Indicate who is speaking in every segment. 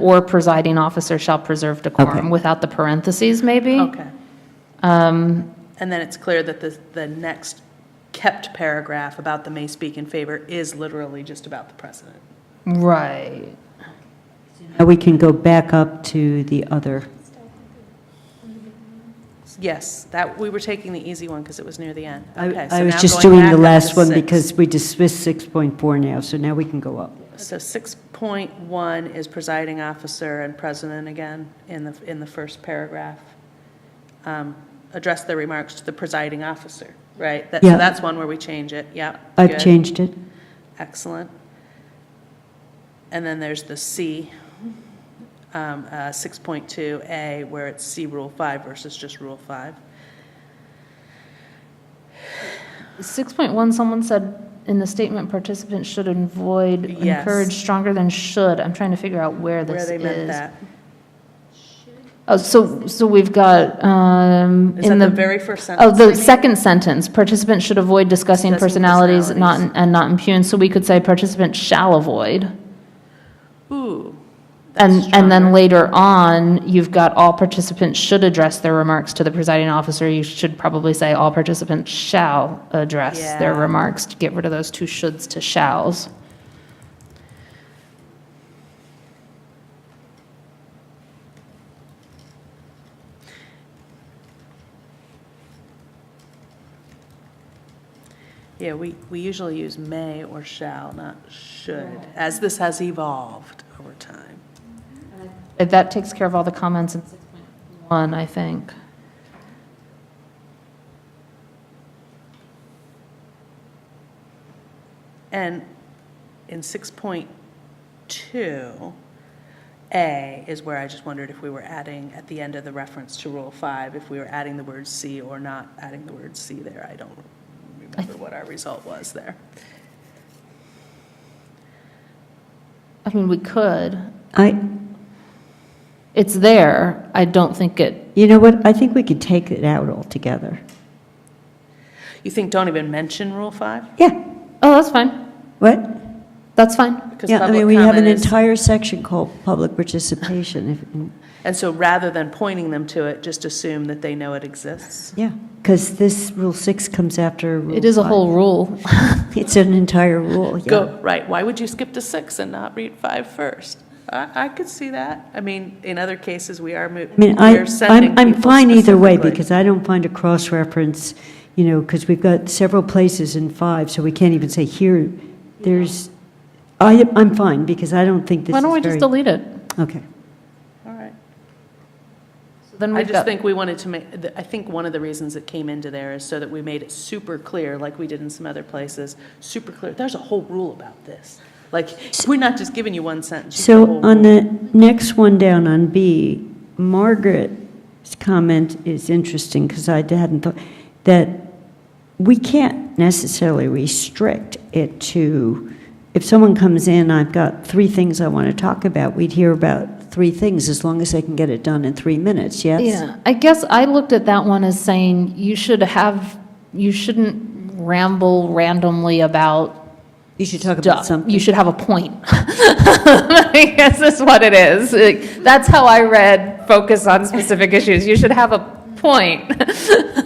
Speaker 1: or presiding officer shall preserve decorum, without the parentheses, maybe?
Speaker 2: Okay.
Speaker 3: Um,
Speaker 2: And then it's clear that the, the next kept paragraph about the may speak in favor is literally just about the president.
Speaker 1: Right.
Speaker 3: Now we can go back up to the other.
Speaker 2: Yes, that, we were taking the easy one because it was near the end.
Speaker 3: I
Speaker 2: Okay, so
Speaker 3: I was
Speaker 2: now
Speaker 3: just
Speaker 2: going
Speaker 3: doing
Speaker 2: back
Speaker 3: the
Speaker 2: up to
Speaker 3: last one
Speaker 2: six.
Speaker 3: because we dismissed 6.4 now, so now we can go up.
Speaker 2: So 6.1 is presiding officer and president again in the, in the first paragraph. Um, Address their remarks to the presiding officer, right? That-
Speaker 3: Yeah.
Speaker 2: So that's one where we change it, yeah.
Speaker 3: I've
Speaker 2: good.
Speaker 3: changed it.
Speaker 2: Excellent. And then there's the C, um, uh, 6.2A, where it's C Rule 5 versus just Rule 5.
Speaker 1: 6.1, someone said in the statement, participants should avoid,
Speaker 2: Yes.
Speaker 1: encourage stronger than should. I'm trying to figure out where
Speaker 2: Where
Speaker 1: this
Speaker 2: they meant
Speaker 1: is.
Speaker 2: that.
Speaker 1: Oh, so, so we've got, um,
Speaker 2: Is that
Speaker 1: in
Speaker 2: the
Speaker 1: the,
Speaker 2: very first
Speaker 1: oh,
Speaker 2: sentence?
Speaker 1: the second sentence, participants should avoid discussing
Speaker 2: Discussing
Speaker 1: personalities not,
Speaker 2: personalities.
Speaker 1: and not impugn. So we could say participants shall avoid.
Speaker 2: Ooh. that's
Speaker 1: And, and then
Speaker 2: stronger.
Speaker 1: later on, you've got all participants should address their remarks to the presiding officer. You should probably say all participants shall address their
Speaker 2: Yeah.
Speaker 1: remarks to get rid of those two shoulds to shalls.
Speaker 2: Yeah, we, we usually use may or shall, not should, as this has evolved over time.
Speaker 1: Uh, That takes care of all the comments in 6.1, I think.
Speaker 2: And in 6.2A is where I just wondered if we were adding, at the end of the reference to Rule 5, if we were adding the word C or not adding the word C there. I don't remember what our result was there.
Speaker 1: I mean, we could.
Speaker 3: I,
Speaker 1: It's there. I don't think it,
Speaker 3: you know what, I think we could take it out altogether.
Speaker 2: You think don't even mention Rule 5?
Speaker 3: Yeah,
Speaker 1: oh, that's fine.
Speaker 3: what?
Speaker 1: That's fine.
Speaker 2: Because
Speaker 3: Yeah, I
Speaker 2: public
Speaker 3: mean, we have an
Speaker 2: comment is-
Speaker 3: entire section called public participation. if-
Speaker 2: And so rather than pointing them to it, just assume that they know it exists.
Speaker 3: Yeah, because this Rule 6 comes after Rule
Speaker 1: It is a
Speaker 3: five.
Speaker 1: whole rule.
Speaker 3: It's an entire rule, yeah.
Speaker 2: Go, right, why would you skip to six and not read five first? I, I could see that. I mean, in other cases, we are, mo-
Speaker 3: I
Speaker 2: we
Speaker 3: mean, I,
Speaker 2: are sending
Speaker 3: I'm, I'm
Speaker 2: people
Speaker 3: fine either way,
Speaker 2: specifically.
Speaker 3: because I don't find a cross-reference, you know, because we've got several places in five, so we can't even say here, there's, I, I'm fine, because I don't think this
Speaker 1: Why
Speaker 3: is
Speaker 1: don't we just
Speaker 3: very.
Speaker 1: delete it?
Speaker 3: Okay,
Speaker 2: All right.
Speaker 1: So Then
Speaker 2: I
Speaker 1: we've
Speaker 2: just
Speaker 1: got,
Speaker 2: think we wanted to make, I think one of the reasons it came into there is so that we made it super clear, like we did in some other places, super clear, there's a whole rule about this. Like, we're not just giving you one sentence. you've got
Speaker 3: so
Speaker 2: a whole
Speaker 3: on
Speaker 2: rule.
Speaker 3: the next one down on B, Margaret's comment is interesting, because I hadn't thought, that we can't necessarily restrict it to, if someone comes in, I've got three things I want to talk about, we'd hear about three things as long as they can get it done in three minutes, yes?
Speaker 1: yeah, I guess I looked at that one as saying you should have, you shouldn't ramble randomly about
Speaker 3: You should talk about
Speaker 1: duh,
Speaker 3: something.
Speaker 1: you should have a point. I guess that's what it is. Like, That's how I read focus on specific issues. You should have a point.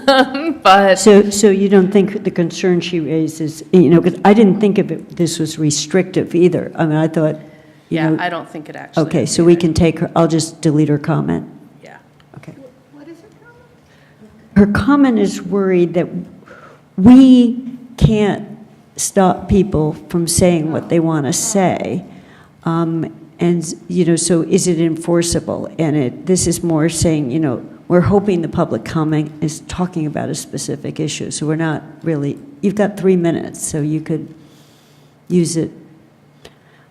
Speaker 1: But
Speaker 3: So, so you don't think the concern she raises, you know, because I didn't think of it, this was restrictive either. I mean, I thought, you
Speaker 2: Yeah,
Speaker 3: know,
Speaker 2: I don't think it actually.
Speaker 3: okay,
Speaker 2: is
Speaker 3: so we
Speaker 2: either.
Speaker 3: can take her, I'll just delete her comment.
Speaker 2: Yeah.
Speaker 3: Okay. Her comment is worried that we can't stop people from saying what they want to say. Um, And, you know, so is it enforceable? And it, this is more saying, you know, we're hoping the public comment is talking about a specific issue, so we're not really, you've got three minutes, so you could use it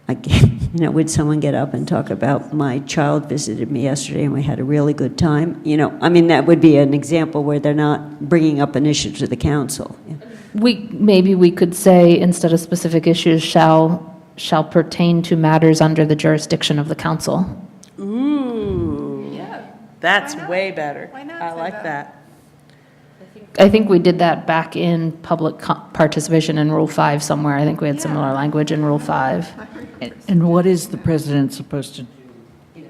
Speaker 3: like, you know, would someone get up and talk about, my child visited me yesterday and we had a really good time? You know, I mean, that would be an example where they're not bringing up an issue to the council. Yeah.
Speaker 1: we, maybe we could say, instead of specific issues, shall, shall pertain to matters under the jurisdiction of the council.
Speaker 2: Ooh,
Speaker 4: Yeah,
Speaker 2: that's
Speaker 4: Why not?
Speaker 2: way better.
Speaker 4: Why not
Speaker 2: I
Speaker 4: say
Speaker 2: like
Speaker 4: that?
Speaker 2: that.
Speaker 1: I think we did that back in public co- participation in Rule 5 somewhere. I think we had similar language in Rule 5.
Speaker 5: And what is the president supposed to